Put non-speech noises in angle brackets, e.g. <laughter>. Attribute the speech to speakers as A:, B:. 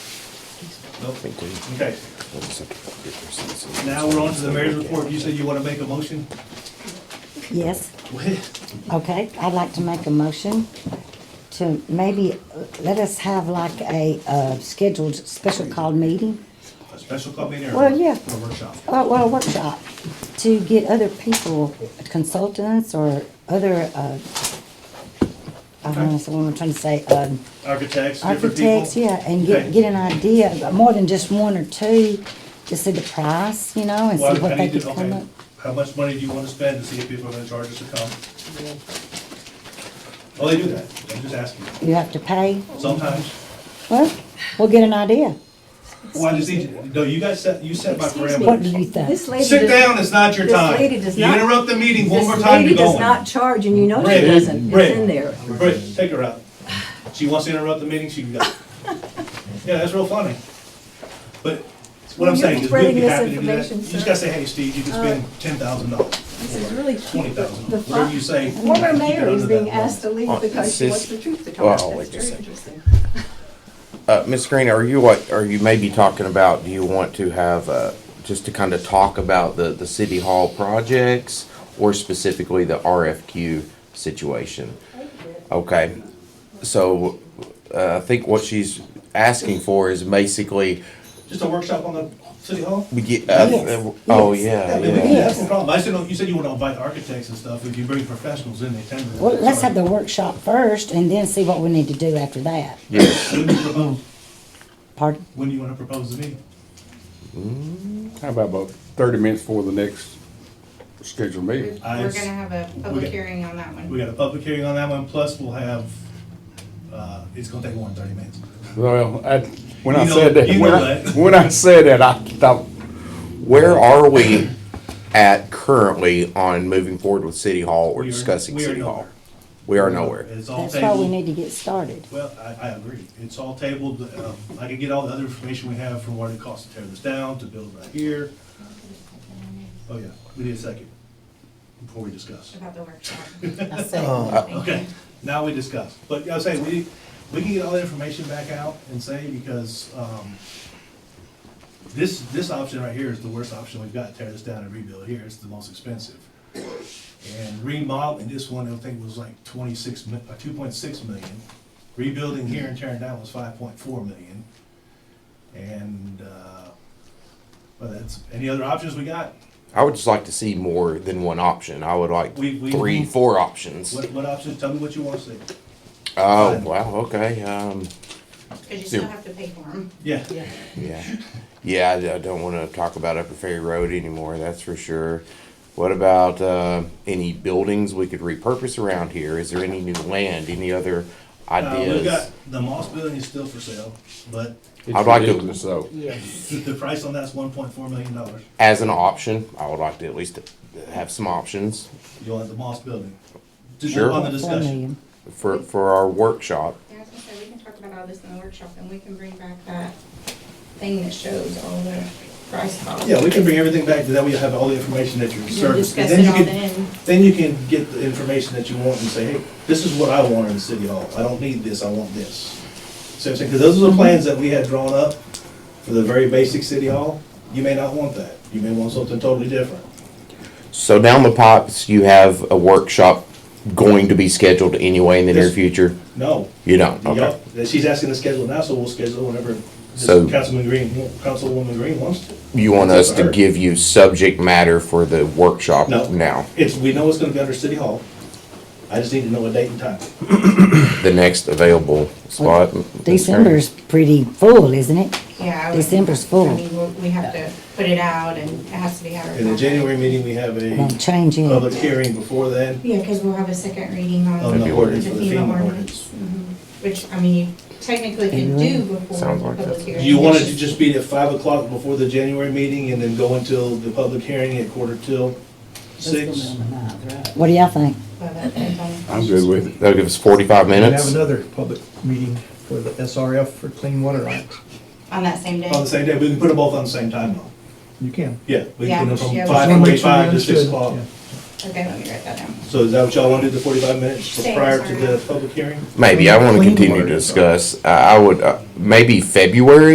A: Nope.
B: think we.
A: Okay, now we're on to the mayor's report. You said you want to make a motion?
C: Yes,
A: Go ahead.
C: okay, I'd like to make a motion to maybe uh, let us have like a, uh, scheduled special call meeting,
A: A special call meeting or?
C: Well, yeah.
A: or workshop?
C: uh, well, a workshop, to get other people, consultants or other, uh, I don't know
A: Okay.
C: what I'm trying to say, um,
A: Architects, different people?
C: architects, yeah, and get,
A: Okay.
C: get an idea, but more than just one or two, to see the price, you know, and
A: Well,
C: see
A: I
C: what they
A: need
C: could
A: to,
C: come
A: okay,
C: up.
A: how much money do you want to spend to see if people are going to charge us to come? Well, they do that. I'm just asking.
C: You have to pay,
A: Sometimes.
C: well, we'll get an idea,
A: Well, I just need, to- no, you guys set, you set my
D: Excuse me.
C: what
A: parameters.
C: do you think?
D: This lady
A: Sit
D: does-
A: down, it's not your
D: this
A: time.
D: lady does
A: You
D: not-
A: interrupt the meeting one
D: this
A: more time,
D: lady
A: you're
D: does
A: going.
D: not charge, and you know Oh, she
A: Rick,
D: doesn't.
A: Rick.
D: It's in there.
A: Britt, take her out. She wants to interrupt the meeting, she
D: <laughs>
A: can go. Yeah, that's real funny. But what I'm
D: Well, you're
A: saying is we'd
D: spreading
A: be
D: this
A: happy to do that. You
D: information,
A: just
D: sir. Uh,
A: gotta say, hey, Steve, you can spend ten thousand dollars,
D: This is really cheap.
A: twenty thousand
D: The
A: dollars, whatever
D: fi-
A: you say. keep
D: Former
A: it
D: mayor
A: under
D: is being
A: that
D: asked to
B: Oh,
D: leave because she
B: this-
D: wants the truth to come
B: well,
D: out.
B: wait
D: That's
B: just a
D: very
B: second.
D: interesting.
B: Uh, Ms. Green, are you what, are you maybe talking about, do you want to have, uh, just to kind of talk about the, the city hall projects or specifically the RFQ situation? Okay, so, uh, I think what she's asking for is basically,
A: level. Just a workshop on the city hall?
B: we get, uh,
C: Yes,
B: oh,
C: yes.
B: yeah,
A: Yeah, we can,
B: yeah.
A: that's no problem. I said, no, you said you want to invite architects and stuff, if you bring professionals in, they tend to.
C: Well, let's have the workshop first and then see what we need to do after that.
B: Yes,
A: When do you propose,
C: Pardon?
A: when do you want to propose the meeting?
E: How about about thirty minutes before the next scheduled
F: We're
E: meeting?
F: gonna have a
A: We
F: public
A: got-
F: hearing on that one.
A: We got a public hearing on that one, plus we'll have, uh, it's gonna take more than thirty minutes.
E: Well, I, when
A: You
E: I
A: know-
E: said that,
A: you
E: when
A: know
E: I,
A: that.
E: when I said that, I thought,
B: where are we at currently on moving forward with city hall or
A: We are-
B: discussing
A: we are
B: city hall?
A: nowhere.
B: We are nowhere.
A: It's all
C: That's why we
A: tabled.
C: need to get started.
A: Well, I, I agree. It's all tabled. Um, I can get all the other information we have from what it costs to tear this down, to build right here. Oh, yeah, we need a second before we discuss.
F: About
A: <laughs>
F: the workshop.
G: I second.
A: Okay, now we discuss. But I was saying, we, we can get all the information back out and say, because, um, this, this option right here is the worst option we've got, tear this down and rebuild here. It's the most expensive. And remodeling this one, I think was like twenty-six, uh, two point six million. Rebuilding here and tearing down was five point four million. And, uh, well, that's, any other options we got?
B: I would just like to see more than one option. I would like
A: We- we-
B: three, four options.
A: What, what options? Tell me what you want to see.
B: Oh, wow, okay, um,
F: Cause you still have to pay for them.
A: Yeah.
B: yeah. Yeah, I, I don't wanna talk about Upper Ferry Road anymore, that's for sure. What about, uh, any buildings we could repurpose around here? Is there any new land, any other
A: Uh, we've got,
B: ideas?
A: the Moss Building is still for sale, but
B: I'd
E: it's
B: like to-
E: ridiculous, though.
G: Yes.
A: <laughs> the, the price on that's one point four million dollars.
B: As an option, I would like to at least have some options
A: You want the Moss Building? Just
B: Sure.
A: on the
C: Four
A: discussion.
C: million.
B: for, for our workshop.
F: Yeah, I was gonna say, we can talk about all this in the workshop and we can bring back that thing that shows all the price costs.
A: Yeah, we can bring everything back to that. We have all the information that you're
F: We'll
A: serving.
F: discuss
A: Then
F: it
A: you
F: all
A: can-
F: then.
A: Then you can get the information that you want and say, hey, this is what I want in the city hall. I don't need this, I want this. So I'm saying, because those are
F: Mm-hmm.
A: the plans that we had drawn up for the very basic city hall. You may not want that. You may want something totally different.
B: So down the pipes, you have a workshop going to be scheduled anyway in the near
A: Yes.
B: future?
A: No.
B: You don't, okay.
A: Y'all- She's asking to schedule now, so we'll schedule whenever this
B: So-
A: Councilman Green, Councilwoman Green wants to.
B: You want us to
A: Sure.
B: give you subject matter for the workshop
A: No.
B: now,
A: It's, we know it's gonna be under City Hall. I just need to know a date and time.
B: the next available spot?
C: December's pretty full, isn't it?
F: Yeah. I would-
C: December's full.
F: I mean, we- we have to put it out and it has to be advertised.
A: In the January meeting, we have
C: It won't
A: a
C: change
A: public
C: anything.
A: hearing before then
F: Yeah, cause we'll have a second reading
A: on
F: on
A: the
B: February.
F: the
A: ordinance for the
F: FEMA
A: FEMA ordinance.
F: ordinance. Mhm. Which, I mean, you technically can do before the
B: Sounds like
F: public
B: that's-
F: hearing.
A: You want it
F: It's
A: to just be at five o'clock before the January meeting and then go until the public hearing at quarter till six?
C: What do y'all think?
F: Well, that depends on-
E: I'm good with it.
B: That'll give us forty-five
H: We have
B: minutes?
H: another public meeting for the SRF for clean water rights.
F: On that same day.
A: On the same day, we can put them both on the same time though.
H: You can.
A: Yeah, we
F: Yeah,
A: can put them
F: yeah,
A: from
F: we
A: five
H: Just wanna make sure you
A: forty-five to six
H: understood.
A: o'clock.
H: Yeah.
F: Okay, let me write that down.
A: So is that what y'all want to do, the forty-five minutes
F: Same,
A: prior to
F: sorry.
A: the public hearing?
B: Maybe, I wanna
H: Clean
B: continue to
H: water.
B: discuss, I, I would, uh, maybe February